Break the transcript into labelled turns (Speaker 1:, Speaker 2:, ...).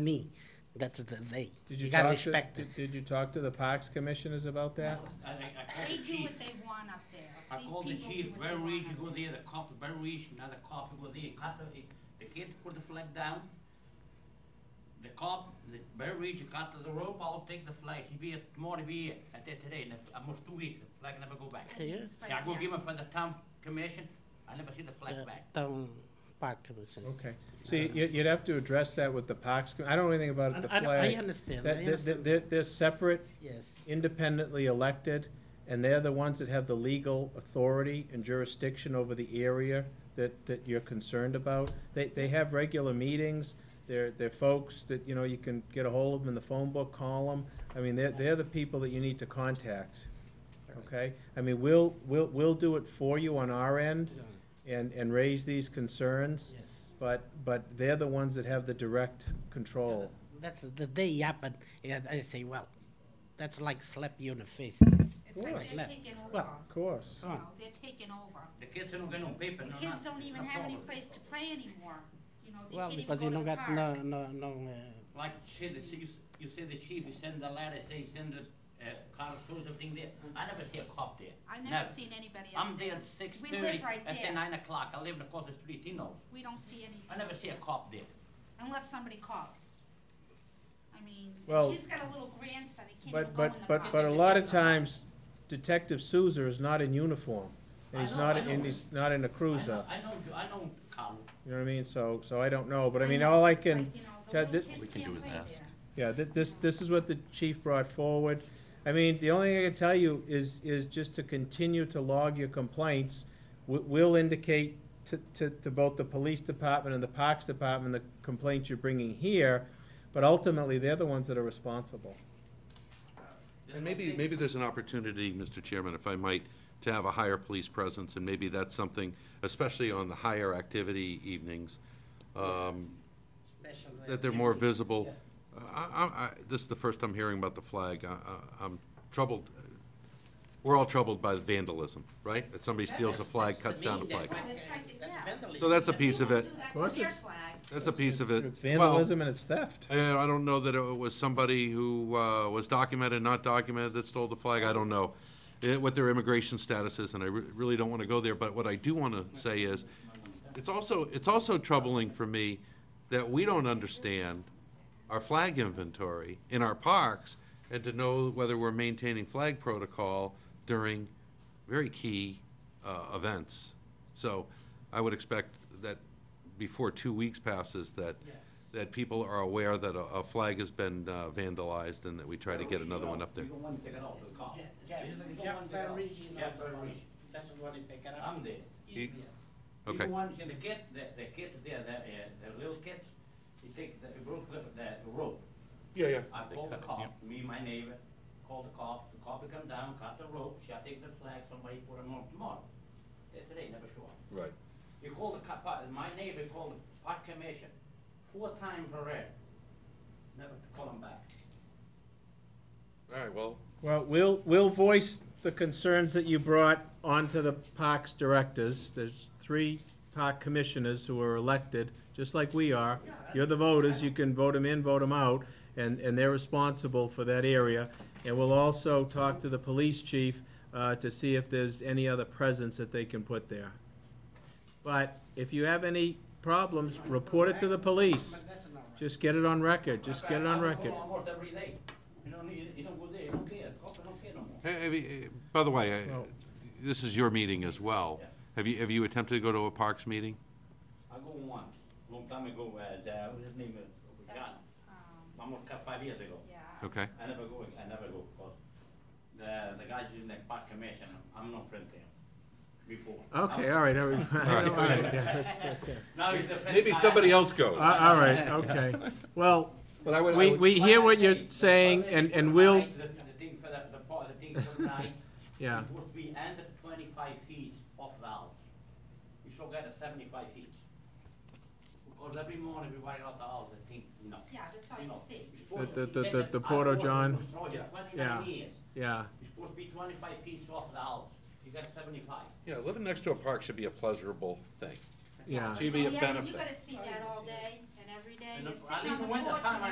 Speaker 1: me. That's the they.
Speaker 2: Did you
Speaker 1: gotta
Speaker 2: talk to,
Speaker 1: respect it.
Speaker 2: did- did you talk to the parks commissioners about that?
Speaker 3: I, I, I called
Speaker 4: They
Speaker 3: the
Speaker 4: do
Speaker 3: chief,
Speaker 4: what they want up there.
Speaker 3: I
Speaker 4: These
Speaker 3: called the
Speaker 4: people do
Speaker 3: chief,
Speaker 4: what they
Speaker 3: very
Speaker 4: want
Speaker 3: rich,
Speaker 4: up
Speaker 3: go
Speaker 4: there.
Speaker 3: there, the cop, very rich, another cop, go there, cut the, they can't put the flag down. The cop, the very rich, cut the rope, I'll take the flag, he be at, tomorrow be at that today, and if- almost two weeks, the flag never go back.
Speaker 4: I
Speaker 3: See,
Speaker 1: See?
Speaker 4: mean,
Speaker 1: ya?
Speaker 4: it's like,
Speaker 3: I go
Speaker 4: yeah.
Speaker 3: give him for the town commission, I never see the flag
Speaker 1: The
Speaker 3: back.
Speaker 1: town park commission.
Speaker 2: Okay, so you, you'd have to address that with the parks, com- I don't know anything about the
Speaker 1: I- I- I
Speaker 2: flag.
Speaker 1: understand, I
Speaker 2: That, they're,
Speaker 1: understand,
Speaker 2: they're, they're separate,
Speaker 1: yes.
Speaker 2: independently elected, and they're the ones that have the legal authority and jurisdiction over the area that, that you're concerned about. They, they have regular meetings, they're, they're folks that, you know, you can get a hold of them in the phone book, call them. I mean, they're, they're the people that you need to contact, okay? I mean, we'll, we'll, we'll do it for you on our end and, and raise these concerns,
Speaker 1: Yes.
Speaker 2: but, but they're the ones that have the direct control.
Speaker 1: That's the they happen, and I say, well, that's like slap you in the face.
Speaker 4: It's like
Speaker 1: course.
Speaker 4: they're taking over.
Speaker 1: Well,
Speaker 2: Of course.
Speaker 4: You
Speaker 1: Come on.
Speaker 4: know, They're taking over.
Speaker 3: The kids don't get no paper,
Speaker 4: The
Speaker 3: no
Speaker 4: kids
Speaker 3: nothing,
Speaker 4: don't even
Speaker 3: no
Speaker 4: have any
Speaker 3: problem.
Speaker 4: place to play anymore. You know, they
Speaker 1: Well,
Speaker 4: can't even
Speaker 1: because
Speaker 4: go
Speaker 1: you
Speaker 4: to
Speaker 1: don't
Speaker 4: the
Speaker 1: got no,
Speaker 4: park.
Speaker 1: no, no, uh,
Speaker 3: Like you said, it's- you, s- you said the chief, you send the letter, say, send the, uh, car, or something there, I never see a cop there,
Speaker 4: I've
Speaker 3: never.
Speaker 4: Mm. never seen anybody
Speaker 3: I'm
Speaker 4: up
Speaker 3: there
Speaker 4: there.
Speaker 3: at six
Speaker 4: We
Speaker 3: thirty.
Speaker 4: live right
Speaker 3: At
Speaker 4: there.
Speaker 3: the nine o'clock, I live across the street, he knows.
Speaker 4: We don't see
Speaker 3: I
Speaker 4: any,
Speaker 3: never see a cop there.
Speaker 4: unless somebody calls. I mean,
Speaker 2: Well,
Speaker 4: she's got a little grandson, he can't
Speaker 2: But,
Speaker 4: even go in
Speaker 2: but,
Speaker 4: the
Speaker 2: but, but a
Speaker 4: park.
Speaker 2: lot of times Detective Souza is not in uniform. And
Speaker 3: I
Speaker 2: he's
Speaker 3: know,
Speaker 2: not,
Speaker 3: I know.
Speaker 2: and he's not in a cruiser,
Speaker 3: I know, I know, I know Carl.
Speaker 2: you know what I mean? So, so I don't know, but I mean,
Speaker 4: know,
Speaker 2: all I
Speaker 4: it's like,
Speaker 2: can,
Speaker 4: you
Speaker 2: tell-
Speaker 4: know, the little
Speaker 2: thi-
Speaker 4: kids
Speaker 5: We can
Speaker 4: can't
Speaker 5: do is
Speaker 4: play
Speaker 5: ask.
Speaker 4: there.
Speaker 2: yeah, thi- this, this is what the chief brought forward. I mean, the only thing I can tell you is, is just to continue to log your complaints. We, we'll indicate to, to, to both the police department and the parks department the complaints you're bringing here, but ultimately, they're the ones that are responsible.
Speaker 5: And maybe, maybe there's an opportunity, Mr. Chairman, if I might, to have a higher police presence, and maybe that's something, especially on the higher activity evenings, um,
Speaker 1: special.
Speaker 5: that they're more visible. I, I, I, this is the first I'm hearing about the flag. I, I, I'm troubled. We're all troubled by vandalism, right? That somebody steals a flag, cuts down a flag.
Speaker 4: It's like, yeah.
Speaker 5: So that's a piece of
Speaker 4: They
Speaker 5: it.
Speaker 4: won't do that to
Speaker 2: course
Speaker 4: their
Speaker 2: it's-
Speaker 4: flag.
Speaker 5: That's a piece of it.
Speaker 2: It's
Speaker 5: Well,
Speaker 2: vandalism and it's theft.
Speaker 5: Yeah, I don't know that it was somebody who uh, was documented, not documented, that stole the flag, I don't know eh, what their immigration status is, and I re- really don't want to go there, but what I do want to say is, it's also, it's also troubling for me that we don't understand our flag inventory in our parks, and to know whether we're maintaining flag protocol during very key uh, events. So I would expect that before two weeks passes, that, that people are aware that a, a flag has been uh, vandalized and that we try to get another one up there.
Speaker 3: We don't want to take it off, the cop.
Speaker 1: Jeff,
Speaker 3: We don't
Speaker 1: Jeff
Speaker 3: want to take it off.
Speaker 1: Ferrigno
Speaker 3: Jeff
Speaker 1: is the one.
Speaker 3: Ferrigno.
Speaker 1: That's what they pick it up.
Speaker 3: I'm there.
Speaker 5: He-
Speaker 3: He the
Speaker 5: Okay,
Speaker 3: one, and the kid, the, the kid there, the, uh, the little kids, he take the, broke the, the rope.
Speaker 5: Yeah, yeah.
Speaker 3: I called the cop, me, my neighbor, called the cop, the cop come down, cut the rope, she I take the flag, somebody put them on tomorrow. Eh, Today, never show up.
Speaker 5: right.
Speaker 3: You call the cop, uh, my neighbor called the park commission, four times already, never to call him back.
Speaker 5: All right, well,
Speaker 2: Well, we'll, we'll voice the concerns that you brought onto the parks directors. There's three park commissioners who are elected, just like we are. You're the voters, you can vote them in, vote them out, and, and they're responsible for that area. And we'll also talk to the police chief, uh, to see if there's any other presence that they can put there. But if you have any problems, report it to the police. Just get it on record, just get it on
Speaker 3: I
Speaker 2: record.
Speaker 3: call almost every day, you don't, need- you don't go there, you don't care, cop don't care no more.
Speaker 5: eh, eh, eh, by the way, eh,
Speaker 2: Well-
Speaker 5: this is your meeting as well. Have you, have you attempted to go to a parks meeting?
Speaker 3: I go once, long time ago, uh, the- what's his name, uh,
Speaker 4: That's,
Speaker 3: Ghana,
Speaker 4: um,
Speaker 3: almost five years ago.
Speaker 4: yeah.
Speaker 5: Okay,
Speaker 3: I never go, I never go, because the, the guys in the park commission, I'm not friend there, before.
Speaker 2: Okay,
Speaker 3: Now-
Speaker 2: all right, all right, all right, yeah.
Speaker 3: Now he's the friend.
Speaker 5: maybe
Speaker 3: guy.
Speaker 5: somebody else goes.
Speaker 2: Uh, All right, okay. Well,
Speaker 5: But I would- I
Speaker 2: we,
Speaker 5: would-
Speaker 2: we hear what you're
Speaker 3: But I
Speaker 2: saying
Speaker 3: say,
Speaker 2: and, and
Speaker 3: but
Speaker 2: we'll,
Speaker 3: I- The, the thing for the, the part, the thing for the night.
Speaker 2: Yeah.
Speaker 3: It supposed to be under twenty-five feet off the house. You should get a seventy-five feet. Because every morning we wire out the house, I think, you know.
Speaker 4: Yeah, that's all
Speaker 3: you
Speaker 4: you
Speaker 3: know,
Speaker 4: see.
Speaker 3: it's supposed
Speaker 2: The-
Speaker 3: to
Speaker 2: the-
Speaker 3: be-
Speaker 2: the-
Speaker 3: that-
Speaker 2: the
Speaker 3: that- I
Speaker 2: Porto
Speaker 3: bought it
Speaker 2: John.
Speaker 3: was destroyed in
Speaker 2: Yeah.
Speaker 3: Twenty-nine years.
Speaker 2: yeah,
Speaker 3: It's supposed to be twenty-five feet off the house. You got seventy-five.
Speaker 5: Yeah, living next to a park should be a pleasurable thing.
Speaker 2: yeah.
Speaker 5: Should be a
Speaker 4: Oh, Yeah, but you
Speaker 5: benefit.
Speaker 4: gotta see that all day and every day.
Speaker 3: And
Speaker 4: You're
Speaker 3: if I
Speaker 4: sitting on
Speaker 3: leave
Speaker 4: the
Speaker 3: the window,
Speaker 4: porch
Speaker 3: time
Speaker 4: and
Speaker 3: I